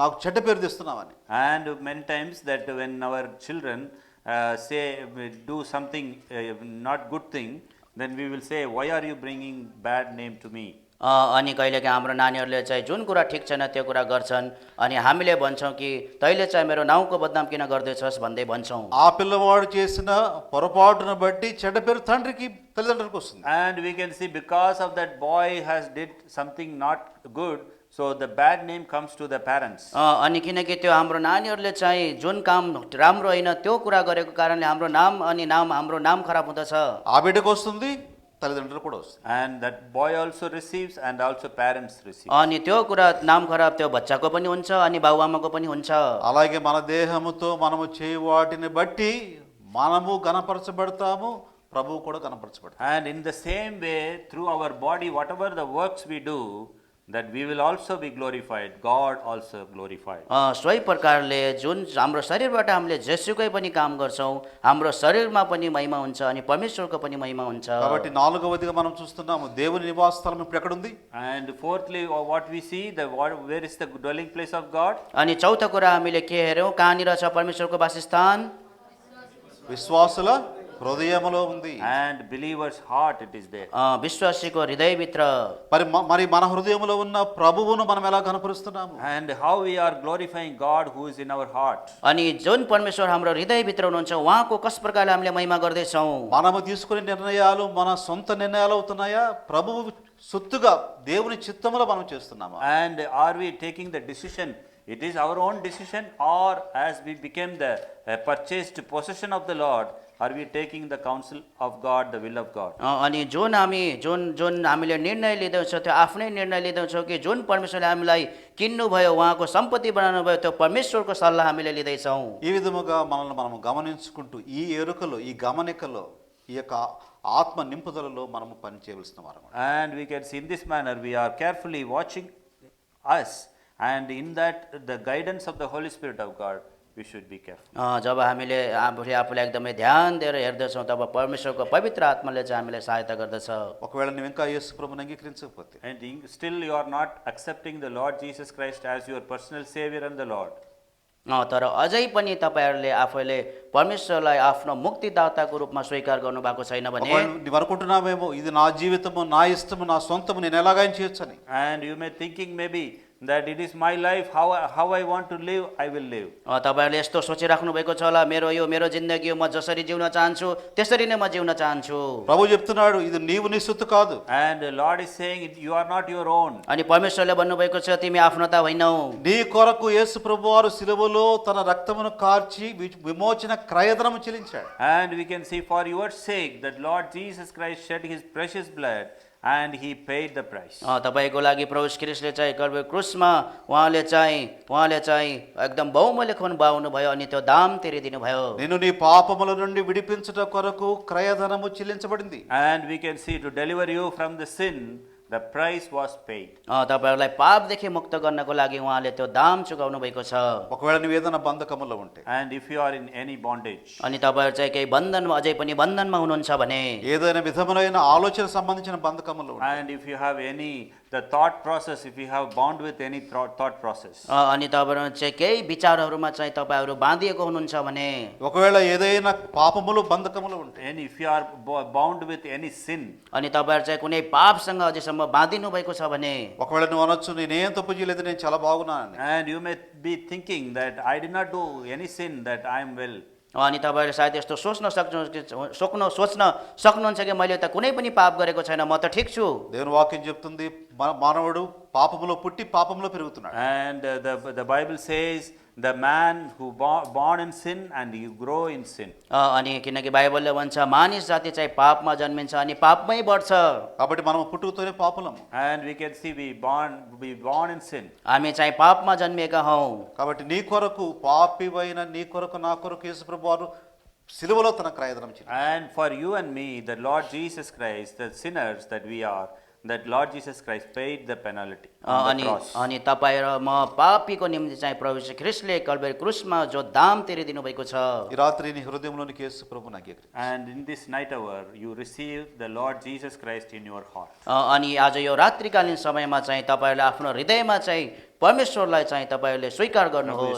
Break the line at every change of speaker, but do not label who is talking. నాకు చెడ్డ పేరు తెస్తున్నావని
And many times that when our children uh, say we do something uh, not good thing, then we will say, "Why are you bringing bad name to me?"
अ, अनि कहिलेकाहीँ हाम्रो नानीहरूले चाहिँ जुन कुरा ठिक छैन त्यो कुरा गर्छन् अनि हामीले भन्छौँ कि तैँले चाहिँ मेरो नाउँको बदनाम किन गर्दैछस् भन्दै भन्छौँ
ఆ పిల్లవాడు చేసిన పొరపాటును బట్టి చెడ్డ పేరు తండ్రికి తల్లిదండ్రులకు వస్తుంది
And we can see because of that boy has did something not good, so the bad name comes to the parents.
अ, अनि किनकि त्यो हाम्रो नानीहरूले चाहिँ जुन काम राम्रो होइन त्यो कुरा गरेको कारणले हाम्रो नाम अनि नाम हाम्रो नाम खराब हुँदछ
ఆ బిడ్డకు వస్తుంది తల్లిదండ్రులకు కూడా వస్తుంది
And that boy also receives, and also parents receive.
अनि त्यो कुरा नाम खराब त्यो बच्चाको पनि हुन्छ अनि बाबुआमाको पनि हुन्छ
అలాగే మన దేహముతో మనము చేయు వాటిని బట్టి మనము గణపరచబడతాము ప్రభువు కూడా గణపరచబడతాడు
And in the same way, through our body, whatever the works we do, that we will also be glorified. God also glorified.
अ, सोही प्रकारले जुन हाम्रो शरीरबाट हामीले जेसुकै पनि काम गर्छौँ हाम्रो शरीरमा पनि महिमा हुन्छ अनि परमेश्वरको पनि महिमा हुन्छ
కాబట్టి నాలుగవదిగా మనం చూస్తున్నాము దేవుని నివాస స్థలం ఇప్పుడు ఎక్కడుంది
And fourthly, or what we see, the what, where is the dwelling place of God?
अनि चौथो कुरा हामीले के हेऱ्यौँ कहाँनिर छ परमेश्वरको वासस्थान
విశ్వాసుల హృదయములో ఉంది
And believer's heart it is there.
अ, విశ్వాसीको हृदयभित्र
మరి మ- మరి మన హృదయములో ఉన్న ప్రభువును మనం ఎలా కనపరుస్తున్నాము
And how we are glorifying God who is in our heart.
अनि जुन परमेश्वर हाम्रो हृदयभित्र हुनुहुन्छ उहाँको कस प्रकारले हामीले महिमा गर्दैछौँ
మనము తీసుకునే నిర్ణయాలు మన సొంత నిర్ణయాలు అవుతున్నాయా ప్రభువు సొత్తుగా దేవుని చిత్తములో మనం చేస్తున్నామా
And are we taking the decision? It is our own decision, or as we became the uh, purchased possession of the Lord, are we taking the counsel of God, the will of God?
अ, अनि जुन हामी जुन जुन हामीले निर्णय लिँदैछौँ त्यो आफ्नै निर्णय लिँदैछौँ कि जुन परमेश्वरले हामीलाई किन्नुभयो उहाँको सम्पत्ति बनाउनुभयो त्यो परमेश्वरको सल्लाह हामीले लिँदैछौँ
ఈ విధముగా మనల్ని మనము గమనించుకుంటూ ఈ ఎరుకలో ఈ గమనికలో ఈ యొక్క ఆత్మ నింపుదలలో మనము పని చేయవలసిన వారు
And we can see in this manner, we are carefully watching us, and in that, the guidance of the Holy Spirit of God, we should be careful.
अ, जब हामीले आफूले आफूलाई एकदमै ध्यान दिएर हेर्दछौँ तब परमेश्वरको पवित्र आत्माले चाहिँ हामीलाई सहायता गर्दछ
ఒకవేళ నువ్వు ఇంకా యేసు ప్రభుని అంగీకరించకపోతే
And in- still, you are not accepting the Lord Jesus Christ as your personal Savior and the Lord.
अ, तर अझै पनि तपाईँहरूले आफैले परमेश्वरलाई आफ्नो मुक्तिदाताको रूपमा स्वीकार गर्नुभएको छैन भने
ఒకవేళ నువ్వు అనుకుంటున్నావేమో ఇది నా జీవితము నా ఇష్టము నా సొంతము నేను ఎలాగైనా చేయొచ్చని
And you may thinking maybe that it is my life, how, I- how I want to live, I will live.
अ, तपाईँहरूले यस्तो सोचिराख्नु भएको छ होला मेरो यो मेरो जिन्दगी हो म जसरी जिउन चाहन्छु त्यसरी नै म जिउन चाहन्छु
ప్రభు చెప్తున్నాడు ఇది నీవు నీ సొత్తు కాదు
And the Lord is saying, "It- you are not your own.
अनि परमेश्वरले भन्नुभएको छ तिमी आफ्नो त होइनौ
నీ కొరకు యేసు ప్రభు వారు శిలువలో తన రక్తమును కార్చి వి- విమోచన క్రయధనము చెల్లించాడు
And we can see for your sake that Lord Jesus Christ shed his precious blood and he paid the price.
अ, तपाईँको लागि प्रभु क्रिस्टले चाहिँ कर्वे क्रुसमा उहाँले चाहिँ उहाँले चाहिँ एकदम बहुमूल्य खुन बाउनु भयो अनि त्यो दाम तिरिदिनु भयो
నిన్ను నీ పాపముల నుండి విడిపించుట కొరకు క్రయధనము చెల్లించబడింది
And we can see to deliver you from the sin, the price was paid.
अ, तपाईँहरूलाई पापदेखि मुक्त गर्नको लागि उहाँले त्यो दाम चुकाउनु भएको छ
ఒకవేళ నువ్వు ఏదైనా బంధకములో ఉంటే
And if you are in any bondage,
अनि तपाईँहरू चाहिँ केही బంధनमा अझै पनि बन्धनमा हुनुहुन्छ भने
ఏదైనా విధములైన ఆలోచన సంబంధించిన బంధకములు ఉన్నాయి.
and if you have any, the thought process, if you have bound with any thro- thought process,
अ, अनि तपाईँहरू चाहिँ केही विचारहरूमा चाहिँ तपाईँहरू बाँधिएको हुनुहुन्छ भने
ఒకవేళ ఏదైనా పాపములు బంధకములు ఉంటాయి
and if you are bo- bound with any sin,
अनि तपाईँहरू चाहिँ కుनै पापसँग अझैसम्म बाँधिनु भएको छ भने
ఒకవేళ నువ్వు అనొచ్చు నేనేం తప్పు చేయలేదు నేను చాలా బాగున్నానని
and you may be thinking that I did not do any sin, that I am well.
अनि तपाईँहरू सायद यस्तो सोच्न सक्नु सोच्न सोच्न सक्नुहुन्छ कि मैले त कुनै पनि पाप गरेको छैन म त ठिक छु
దేవుని వాక్యం చెప్తుంది మన- మానవుడు పాపములో పుట్టి పాపములో పెరుగుతున్నాడు
And uh, the, the Bible says, the man who bo- born in sin and you grow in sin.
अ, अनि किनकि बाइबलले भन्छ मानिस जाति चाहिँ पापमा जन्मिन्छ अनि पापमै बढ्छ
కాబట్టి మనం పుట్టుకతోనే పాపలము
And we can see we born, we born in sin.
हामी चाहिँ పాपमा जन्मिएका हौँ
కాబట్టి నీ కొరకు పాపివైన నీ కొరకు నా కొరకు యేసుప్రభు వారు సిలువలో తన క్రయదనం చెల్లించాడు
And for you and me, the Lord Jesus Christ, the sinners that we are, that Lord Jesus Christ paid the penalty on
अनि
the cross.
अनि तपाईँ र म पापीको निम्ति चाहिँ प्रभु श्री ख्रिस्टले कल्बेर क्रुसमा जो दाम तिरिदिनु भएको छ
ఈ రాత్రి నీ హృదయంలోనికి యేసు ప్రభు నాకు ఎగిరి
And in this night hour, you receive the Lord Jesus Christ in your heart.
अ, अनि आज यो रात्रिकालीन समयमा चाहिँ तपाईँहरूले आफ्नो हृदयमा चाहिँ परमेश्वरलाई चाहिँ तपाईँहरूले स्वीकार गर्नुहोस्